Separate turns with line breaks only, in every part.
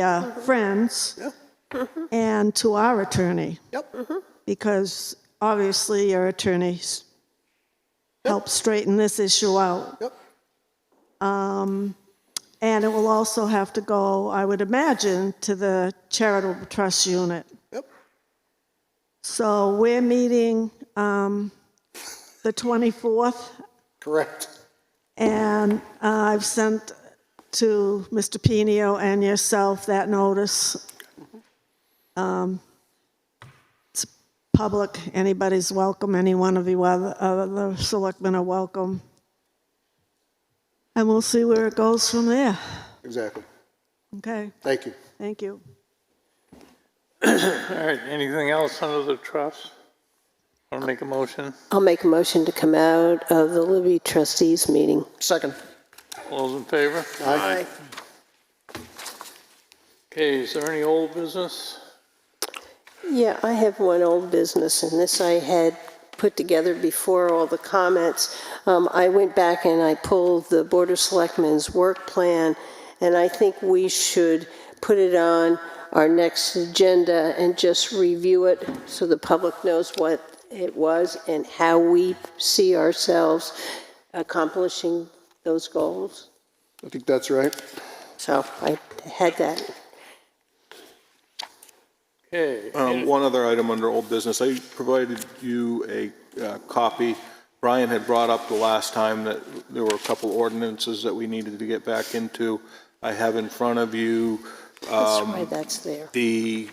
uh, friends and to our attorney,
Yep,
because obviously your attorneys helped straighten this issue out.
yep.
And it will also have to go, I would imagine, to the charitable trust unit.
Yep.
So we're meeting um, the 24th,
Correct.
and uh, I've sent to Mr. Pino and yourself that notice. Um, It's public, anybody's welcome, any one of you other other selectmen are welcome. And we'll see where it goes from there.
Exactly.
Okay,
Thank you.
thank you.
All right, anything else under the trust? Want to make a motion?
I'll make a motion to come out of the Libby trustees meeting.
Second.
All those in favor?
Aye.
Okay, is there any old business?
Yeah, I have one old business, and this I had put together before all the comments. Um, I went back and I pulled the Board of Selectmen's work plan, and I think we should put it on our next agenda and just review it so the public knows what it was and how we see ourselves accomplishing those goals.
I think that's right.
So I had that.
Okay,
Um, One other item under old business, I provided you a uh, copy. Brian had brought up the last time that there were a couple ordinances that we needed to get back into. I have in front of you
That's why that's there.
the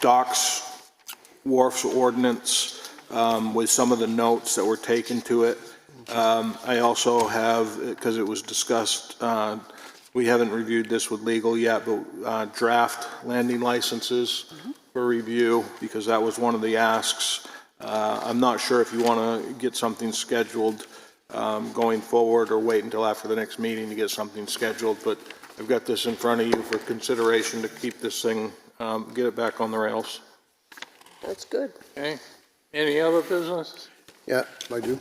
docks wharfs ordinance um, with some of the notes that were taken to it. Um, I also have, because it was discussed, uh, we haven't reviewed this with legal yet, but uh, draft landing licenses for review, because that was one of the asks. Uh, I'm not sure if you want to get something scheduled um, going forward or wait until after the next meeting to get something scheduled, but I've got this in front of you for consideration to keep this thing, um, get it back on the rails.
That's good.
okay. Any other business?
Yeah, I do.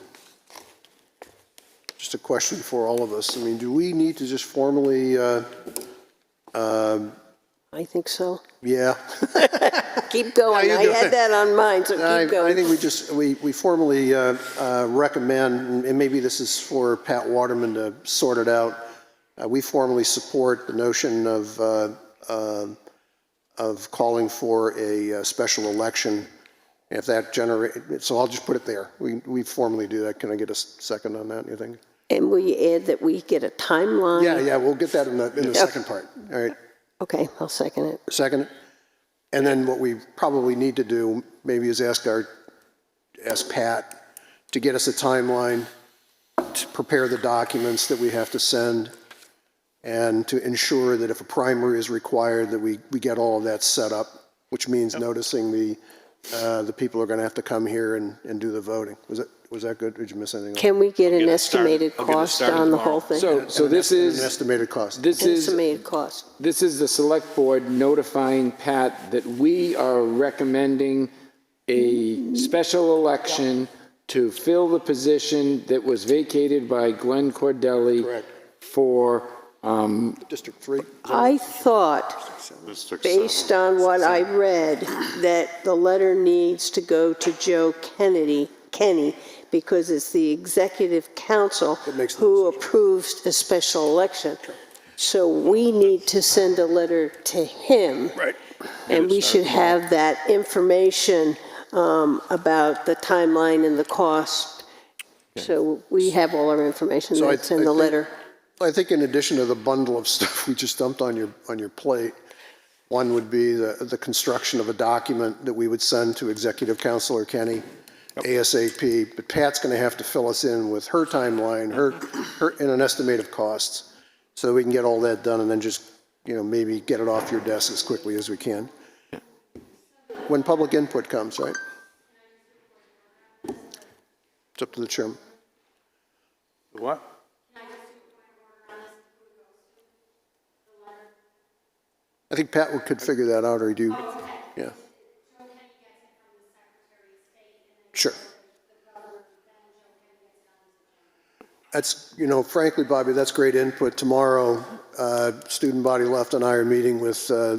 Just a question for all of us. I mean, do we need to just formally, uh,
I think so.
yeah?
Keep going.
you
I
do
had
it.
that on mine, so
I
keep
I
going.
think we just, we we formally uh, uh, recommend, and maybe this is for Pat Waterman to sort it out, uh, we formally support the notion of, uh, um, of calling for a uh, special election. If that generate, so I'll just put it there. We we formally do that. Can I get a s- second on that, you think?
And we add that we get a timeline?
Yeah, yeah, we'll get that in the, in the second part. All right,
Okay, I'll second it.
second. And then what we probably need to do maybe is ask our, ask Pat to get us a timeline to prepare the documents that we have to send and to ensure that if a primary is required, that we, we get all of that set up, which means noticing the, uh, the people are going to have to come here and, and do the voting. Was it, was that good? Did you miss anything?
Can we get an
it started.
estimated
I'll get it
cost
started
on the
tomorrow.
whole thing?
So, so this
An
is,
Estimated cost.
this is,
Estimated cost.
this is the select board notifying Pat that we are recommending a special election to fill the position that was vacated by Glenn Cordelli.
Correct.
For, um,
District three?
I thought, based on what I read, that the letter needs to go to Joe Kennedy, Kenny, because it's the executive council
makes the
who approves a special election. So we need to send a letter to him.
Right.
And we should have that information um, about the timeline and the cost. So we have all our information
So I-
that's in the
I think-
letter.
I think in addition to the bundle of stuff we just dumped on your, on your plate, one would be the, the construction of a document that we would send to Executive Counselor Kenny ASAP, but Pat's going to have to fill us in with her timeline, her, her, and an estimate of costs, so we can get all that done and then just, you know, maybe get it off your desk as quickly as we can. When public input comes, right? It's up to the chairman.
What?
I think Pat would- could figure that out, or do, you- yeah. Sure. That's, you know, frankly, Bobby, that's great input. Tomorrow, uh, student body left and I are meeting with uh,